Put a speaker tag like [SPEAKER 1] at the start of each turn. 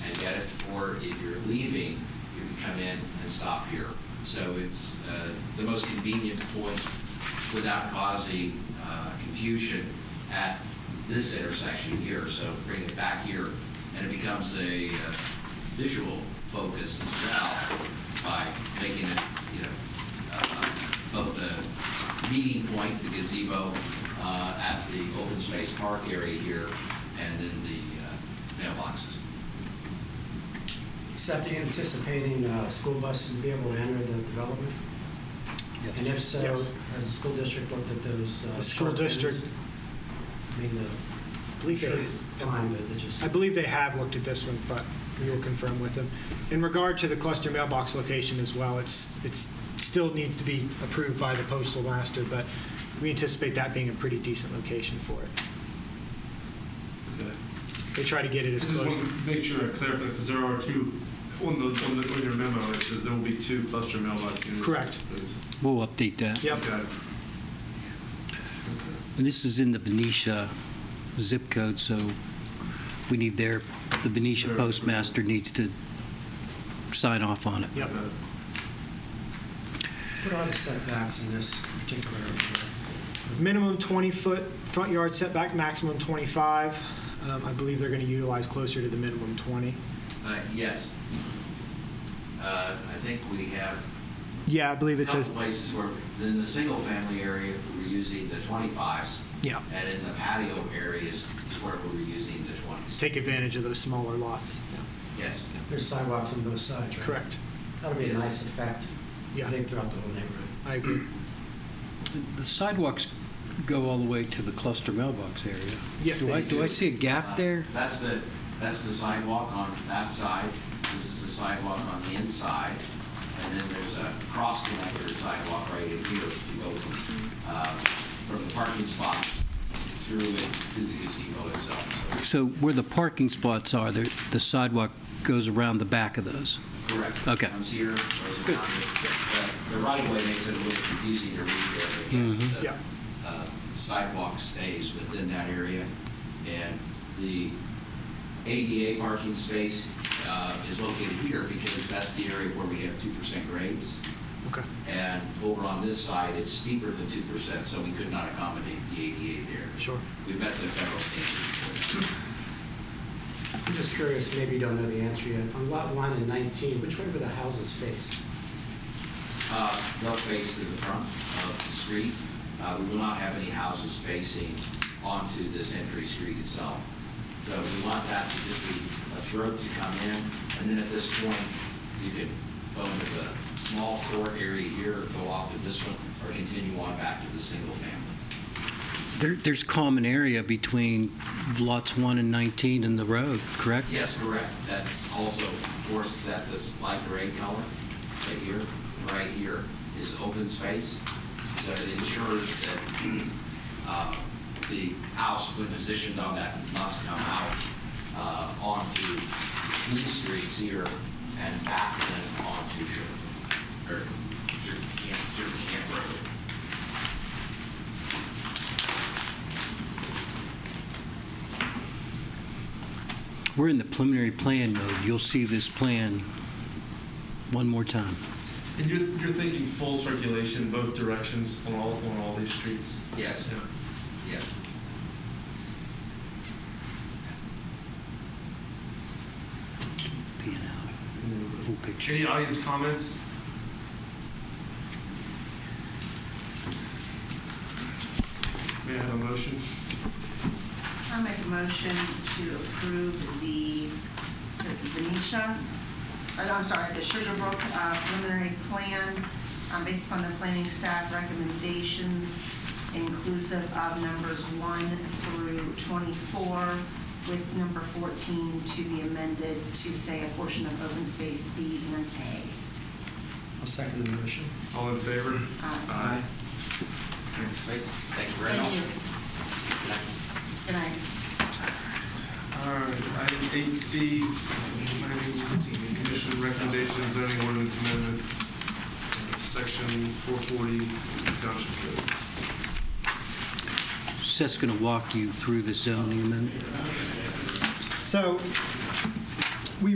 [SPEAKER 1] if you're leaving, you can come in and stop here. So it's uh, the most convenient point without causing uh, confusion at this intersection here. So bring it back here, and it becomes a uh, visual focus as well by making it, you know, uh, both a meeting point, the gazebo uh, at the open space park area here, and then the uh, mailboxes.
[SPEAKER 2] Except anticipating uh, school buses to be able to enter the development? And if so,
[SPEAKER 3] Yes.
[SPEAKER 2] has the school district looked at those? uh,
[SPEAKER 3] The school
[SPEAKER 2] sharp bends?
[SPEAKER 3] district-
[SPEAKER 2] I mean,
[SPEAKER 3] I
[SPEAKER 2] the
[SPEAKER 3] believe
[SPEAKER 2] sure,
[SPEAKER 3] they-
[SPEAKER 2] fine, but they just.
[SPEAKER 3] I believe they have looked at this one, but we will confirm with them. In regard to the cluster mailbox location as well, it's, it's, still needs to be approved by the postal master, but we anticipate that being a pretty decent location for it. They try to get it
[SPEAKER 4] I
[SPEAKER 3] as
[SPEAKER 4] just want
[SPEAKER 3] close.
[SPEAKER 4] to make sure I clarify, because there are two, on the, on the, on your memo, it says there will be two cluster mailbox units.
[SPEAKER 3] Correct.
[SPEAKER 5] We'll update that.
[SPEAKER 3] Yep,
[SPEAKER 4] Okay.
[SPEAKER 5] And this is in the Venetia zip code, so we need their, the Venetia
[SPEAKER 4] Their approval.
[SPEAKER 5] postmaster needs to sign off on it.
[SPEAKER 3] yep.
[SPEAKER 4] Okay.
[SPEAKER 2] What are the setbacks in this particular?
[SPEAKER 3] Minimum 20-foot front yard setback, maximum 25. Um, I believe they're going to utilize closer to the minimum 20.
[SPEAKER 1] Uh, Yes. Uh, I think we have
[SPEAKER 3] Yeah, I believe
[SPEAKER 1] a
[SPEAKER 3] it
[SPEAKER 1] couple
[SPEAKER 3] says,
[SPEAKER 1] places where, in the single-family area, we were using the 25s,
[SPEAKER 3] yeah,
[SPEAKER 1] and in the patio areas is where we were using the 20s.
[SPEAKER 3] take advantage of those smaller lots.
[SPEAKER 1] Yes.
[SPEAKER 2] There's sidewalks on both sides, right?
[SPEAKER 3] Correct.
[SPEAKER 2] That'll be a nice effect, I
[SPEAKER 3] Yeah,
[SPEAKER 2] think, throughout the whole neighborhood.
[SPEAKER 3] I agree.
[SPEAKER 5] The sidewalks go all the way to the cluster mailbox area.
[SPEAKER 3] Yes,
[SPEAKER 5] Do
[SPEAKER 3] they
[SPEAKER 5] I- Do I
[SPEAKER 1] do.
[SPEAKER 5] see a gap there?
[SPEAKER 1] Uh, That's the, that's the sidewalk on that side, this is the sidewalk on the inside, and then there's a cross connector sidewalk right in here to go from, uh, from the parking spots through it to the gazebo itself, so,
[SPEAKER 5] So where the parking spots are, there- the sidewalk goes around the back of those.
[SPEAKER 1] correct.
[SPEAKER 5] Okay.
[SPEAKER 1] Comes here, goes around it. The- The right way makes it a little confusing to read there, but
[SPEAKER 3] Yeah.
[SPEAKER 1] yes, the uh, sidewalk stays within that area, and the ADA parking space uh, is located here because that's the area where we have 2% grades.
[SPEAKER 3] Okay.
[SPEAKER 1] And over on this side, it's steeper than 2%, so we could not accommodate the ADA there.
[SPEAKER 3] Sure.
[SPEAKER 1] We met the federal standard.
[SPEAKER 2] I'm just curious, maybe you don't know the answer yet. On lot one and 19, which way were the houses faced?
[SPEAKER 1] Uh, They'll face to the front of the street. Uh, We will not have any houses facing onto this entry street itself. So we want that to just be a throat to come in, and then at this point, you could go into the small court area here, go off to this one, or continue on back to the single family.
[SPEAKER 5] There- There's common area between lots 1 and 19 and the road, correct?
[SPEAKER 1] Yes, correct. That's also, forces at this light gray color right here, right here is open space. So it ensures that uh, the house when positioned on that must come out uh, onto these streets here and back then onto Sugar, or Sugar Camp, Sugar Camp Road.
[SPEAKER 5] We're in the preliminary plan mode. You'll see this plan one more time.
[SPEAKER 4] And you're, you're thinking full circulation both directions on all, on all these streets?
[SPEAKER 1] Yes,
[SPEAKER 4] Yeah.
[SPEAKER 1] yes.
[SPEAKER 5] Pan out. Full picture.
[SPEAKER 4] Any audience comments? May I have a motion?
[SPEAKER 6] I'll make a motion to approve the the Venetia, or I'm sorry, the Sugarbrook uh, preliminary plan um, based upon the planning staff recommendations inclusive of numbers 1 through 24, with number 14 to be amended to say a portion of open space D and A.
[SPEAKER 2] I'll second the motion.
[SPEAKER 4] All in favor?
[SPEAKER 6] Uh,
[SPEAKER 4] Aye.
[SPEAKER 1] Thanks. Thank you very much.
[SPEAKER 6] Thank you. Good night.
[SPEAKER 4] All right, item eight C, planning commission recommendation zoning ordinance amendment, uh, section four forty township code.
[SPEAKER 5] Seth's going to walk you through the zoning amendment.
[SPEAKER 3] So